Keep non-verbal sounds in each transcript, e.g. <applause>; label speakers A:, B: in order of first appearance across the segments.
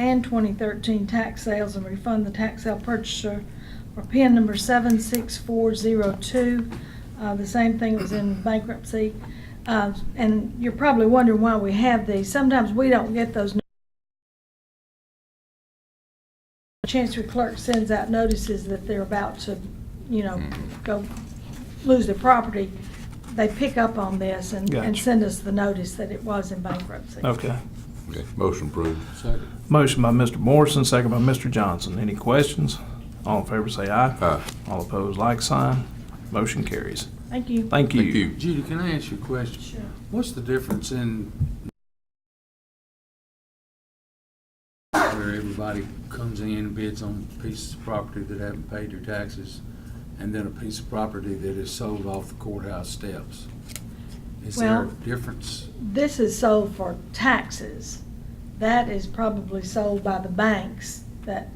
A: and 2013 tax sales and refund the tax sale purchaser for PIN number 76402. Uh, The same thing was in bankruptcy. Uh, And you're probably wondering why we have these. Sometimes we don't get those Chancery clerk sends out notices that they're about to, you know, go lose their property, they pick up on this and, and
B: Gotcha.
A: send us the notice that it was in bankruptcy.
B: Okay.
C: Okay, motion approved.
D: Second.
B: Motion by Mr. Morrison, second by Mr. Johnson. Any questions? All in favor say aye.
C: Aye.
B: All opposed, like sign. Motion carries.
A: Thank you.
B: Thank you.
C: Thank you.
D: Judy, can I ask you a question?
A: Sure.
D: What's the difference in where everybody comes in and bids on pieces of property that haven't paid their taxes, and then a piece of property that is sold off the courthouse steps? Is there a
A: Well-
D: difference?
A: This is sold for taxes. That is probably sold by the banks that,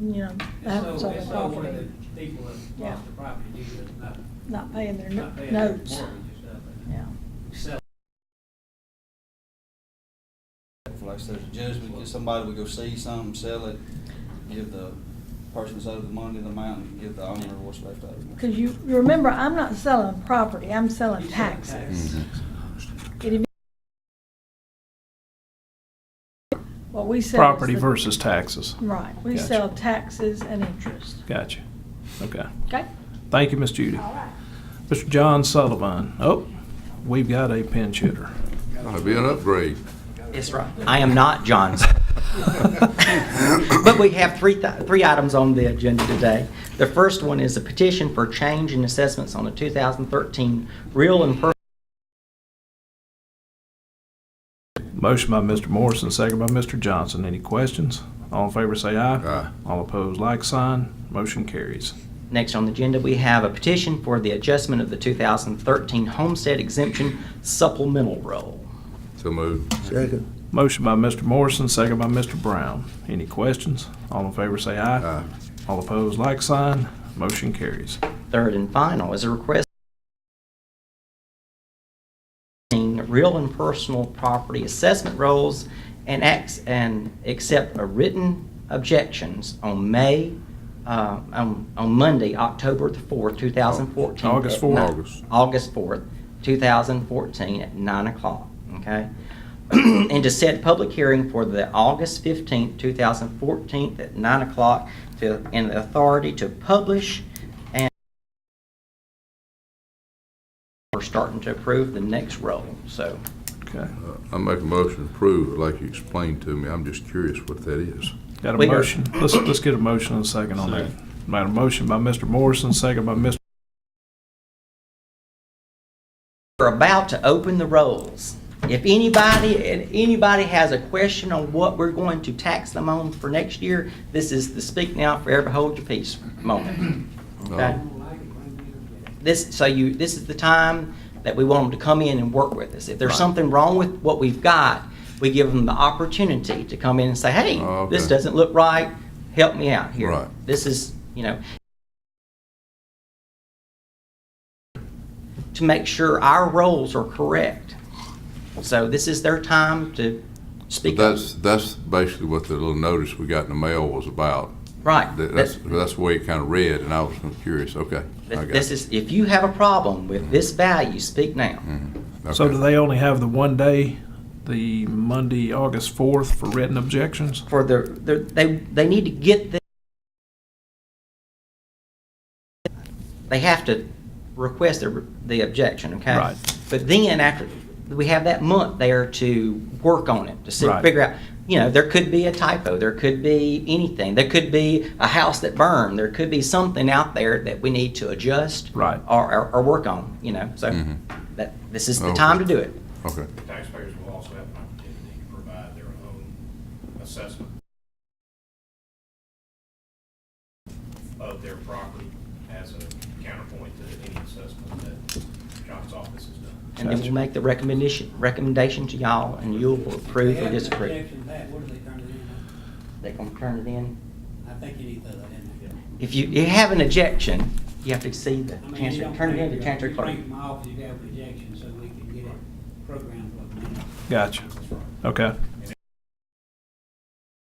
A: you know,
E: It's
A: haven't
E: so,
A: sold their
E: it's so where the
A: property,
E: people that
A: Yeah.
E: lost the property due to not,
A: not paying their no-
E: not paying their mortgage and
A: notes.
E: stuff.
A: Yeah.
F: Like I said, the judge would get somebody, would go see something, sell it, give the person that's owed the money the amount, and give the owner what's left over.
A: Because you, you remember, I'm not selling property, I'm selling
E: You're selling
A: taxes.
C: Mhm.
A: What we sell. is
B: Property
A: the-
B: versus taxes.
A: Right, we
B: Gotcha.
A: sell taxes and interest,
B: Gotcha. Okay.
A: okay?
B: Thank you, Miss Judy. Mr. John Sullivan. Oh, we've got a pin shooter.
C: That'd be an upgrade.
G: Yes, right. I am not John's. But we have three, thi- three items on the agenda today. The first one is a petition for change in assessments on the 2013 real and personal
B: Motion by Mr. Morrison, second by Mr. Johnson. Any questions? All in favor say aye.
C: Aye.
B: All opposed, like sign. Motion carries.
G: Next on the agenda, we have a petition for the adjustment of the 2013 homestead exemption supplemental roll.
C: So moved.
H: Second.
B: Motion by Mr. Morrison, second by Mr. Brown. Any questions? All in favor say aye.
C: Aye.
B: All opposed, like sign. Motion carries.
G: Third and final is a request in real and personal property assessment rolls and acts and accept a written objections on May, uh, on, on Monday, October the fourth, two thousand fourteen.
B: August 4th.
C: August.
G: August fourth, two thousand fourteen, at nine o'clock, okay? <clears throat> And to set public hearing for the August fifteenth, two thousand fourteen, at nine o'clock, to, and the authority to publish and we're starting to approve the next roll, so.
B: Okay.
C: Uh, I make a motion to approve, like you explained to me. I'm just curious what that is.
B: Got a
G: We are-
B: motion. Let's, let's get a motion and a second on that. Made a motion by Mr. Morrison, second by Mr.
G: We're about to open the rolls. If anybody, if anybody has a question on what we're going to tax them on for next year, this is the speak now, forever hold your peace moment. Okay? This, so you, this is the time that we want them to come in and work with us. If there's something wrong with what we've got, we give them the opportunity to come in and say, hey,
C: Okay.
G: this doesn't look right, help me out here.
C: Right.
G: This is, you know, to make sure our roles are correct. So this is their time to
C: But
G: speak up.
C: that's, that's basically what the little notice we got in the mail was about.
G: Right.
C: That-
G: That's-
C: That's, that's the way it kind of read, and I was kinda curious. Okay. I got
G: This
C: it. Mm-hmm.
G: is, if you have a problem with this value, speak now.
B: So
C: Okay.
B: do they only have the one day, the Monday, August 4th for written objections?
G: For the, the- they, they need to get the, they have to request the, the objection, okay?
B: Right.
G: But then after, we have that month there to work on it, to see,
B: Right.
G: figure out, you know, there could be a typo, there could be anything, there could be a house that burned, there could be something out there that we need to adjust.
B: Right.
G: Or, or, or work on, you know, so
C: Mhm.
G: that, this is the
C: Okay.
G: time to do it.
C: Okay.
I: Taxpayers will also have an opportunity to provide their own assessment of their property as a counterpoint to any assessment that John's office has done.
G: And then we'll make the recommendation, recommendation to y'all, and you'll
E: They
G: approve
E: have
G: or
E: an
G: disapprove.
E: objection back, what do they turn it in?
G: They're gonna turn it in.
E: I think you need that in there.
G: If you, you have an objection, you have to see the
E: I mean, you
G: chancellor,
E: don't
G: turn it
E: bring
G: in to
E: your-
G: chancellor
E: you
G: clerk.
E: Bring it to my office, you have an objection, so we can get it programmed. what we need.
B: Gotcha. Okay.